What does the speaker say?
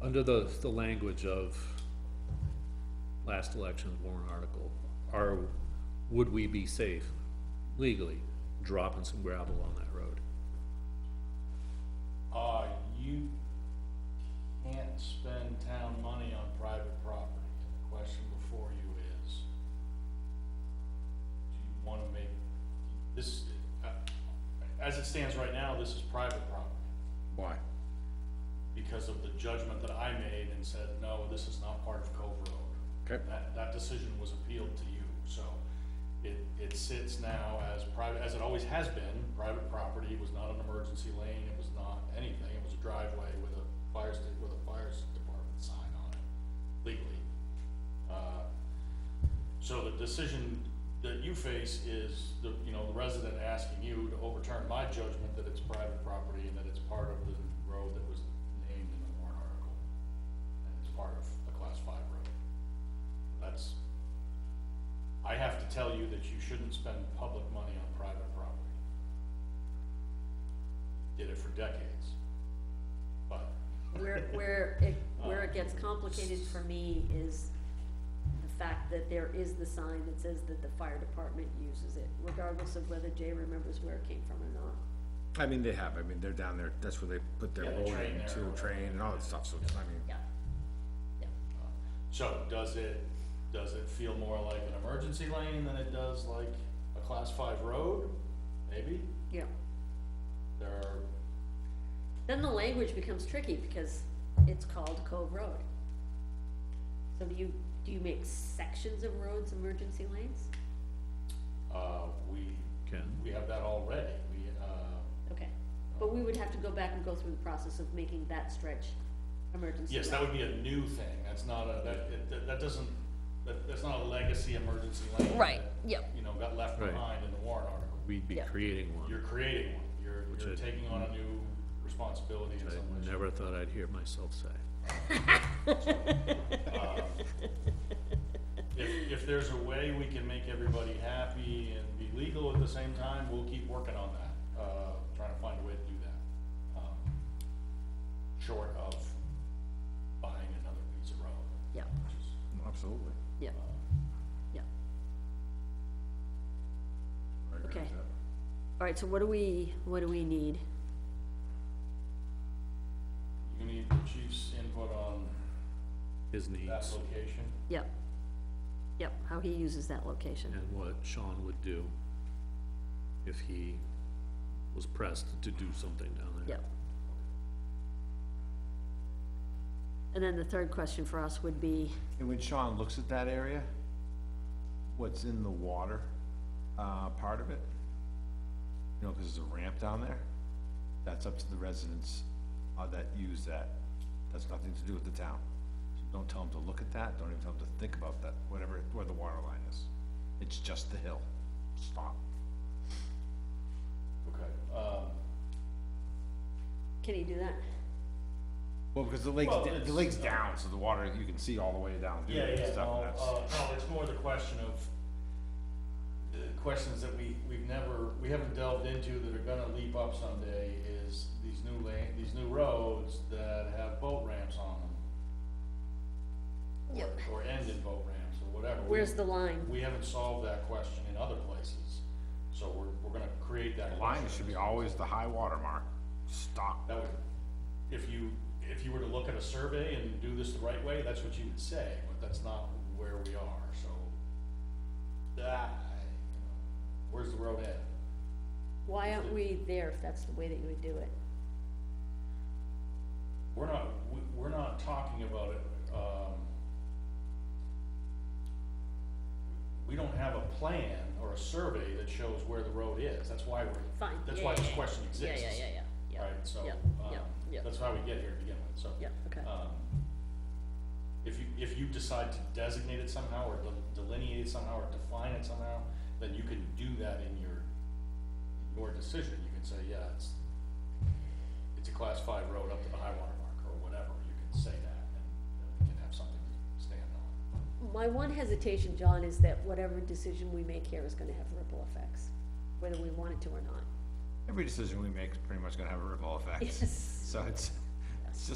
Under the, the language of last election's warrant article, are, would we be safe legally dropping some gravel on that road? Uh, you can't spend town money on private property. The question before you is, do you wanna make, this, uh, as it stands right now, this is private property. Why? Because of the judgment that I made and said, no, this is not part of Cove Road. Okay, That, that decision was appealed to you, so it, it sits now as private, as it always has been, private property, it was not an emergency lane, it was not anything, it was a driveway with a fire sta- with a fire department sign on it legally. Uh, So the decision that you face is the, you know, the resident asking you to overturn my judgment that it's private property and that it's part of the road that was named in the warrant article. And it's part of a class five road. That's, I have to tell you that you shouldn't spend public money on private property. Did it for decades. But Where, where it, where it gets complicated for me is the fact that there is the sign that says that the fire department uses it, regardless of whether Jay remembers where it came from or not. I mean, they have, I mean, they're down there, that's where they put their Yeah, they road train in there or to train and all that stuff, so, I mean, Yeah. Yeah. So does it, does it feel more like an emergency lane than it does like a class five road? Maybe, Yeah. there are, Then the language becomes tricky because it's called Cove Road. So do you, do you make sections of roads emergency lanes? uh, we, Ken? we have that already, we, uh, Okay, but we would have to go back and go through the process of making that stretch emergency. yes, that lane. would be a new thing, that's not a, that, it- that, that doesn't, that, that's not a legacy emergency lane. Right, that, yep. You know, got left Right. behind in the warrant article, We'd be Yeah. creating you're one, creating one, you're, Which you're I- taking on a new responsibility in which some I ways. never thought I'd hear myself say. If, if there's a way we can make everybody happy and be legal at the same time, we'll keep working on that, uh, trying to find a way to do that. um, Short of buying another piece of road, Yeah, which is, absolutely. yeah, yeah. I agree with Okay. that. All right, so what do we, what do we need? you need the chief's input on His that needs location. Yep. Yep, how he uses that location. and what Sean would do if he was pressed to do something down there. Yep. And then the third question for us would be, And when Sean looks at that area, what's in the water, uh, part of it? You know, cause there's a ramp down there, that's up to the residents, uh, that use that, that's nothing to do with the town. So Don't tell them to look at that, don't even tell them to think about that, whatever, where the water line is, it's just the hill, stop. Okay, um, can he do that? Well, because the lake's, Well, da- the it's- lago's down, so the water, you can see all the way down through Yeah, it yeah, and stuff, no, and that's. uh, no, it's more the question of, the questions that we, we've never, we haven't delved into that are gonna leap up someday is these new lane, these new roads that have boat ramps on them. or- Yep. Or end in boat ramps or whatever. We- Where's the line? We haven't solved that question in other places, so we're, we're gonna create that. The line question. should be always the high water mark, stop. That would, if you, if you were to look at a survey and do this the right way, that's what you would say, but that's not where we are, so. That, where's the road at? Why aren't we there if that's the way that you would do it? We're not, we, we're not talking about it, um. We don't have a plan or a survey that shows where the road is, that's why we're, Fine. that's yeah, why yeah, this yeah. question Yeah, exists. yeah, yeah, yeah, yeah. Right, so, Yeah, um, yeah, yeah, that's how we get here to begin with, so. yeah, okay. um, If you, if you decide to designate it somehow, or del- delineate it somehow, or define it somehow, then you can do that in your, your decision, you can say, yeah, it's, it's a class five road up to the high water mark, or whatever, you can say that, and then we can have something to stand on. My one hesitation, John, is that whatever decision we make here is gonna have ripple effects, whether we want it to or not. Every decision we make is pretty much gonna have a ripple effect. Yes. So it's,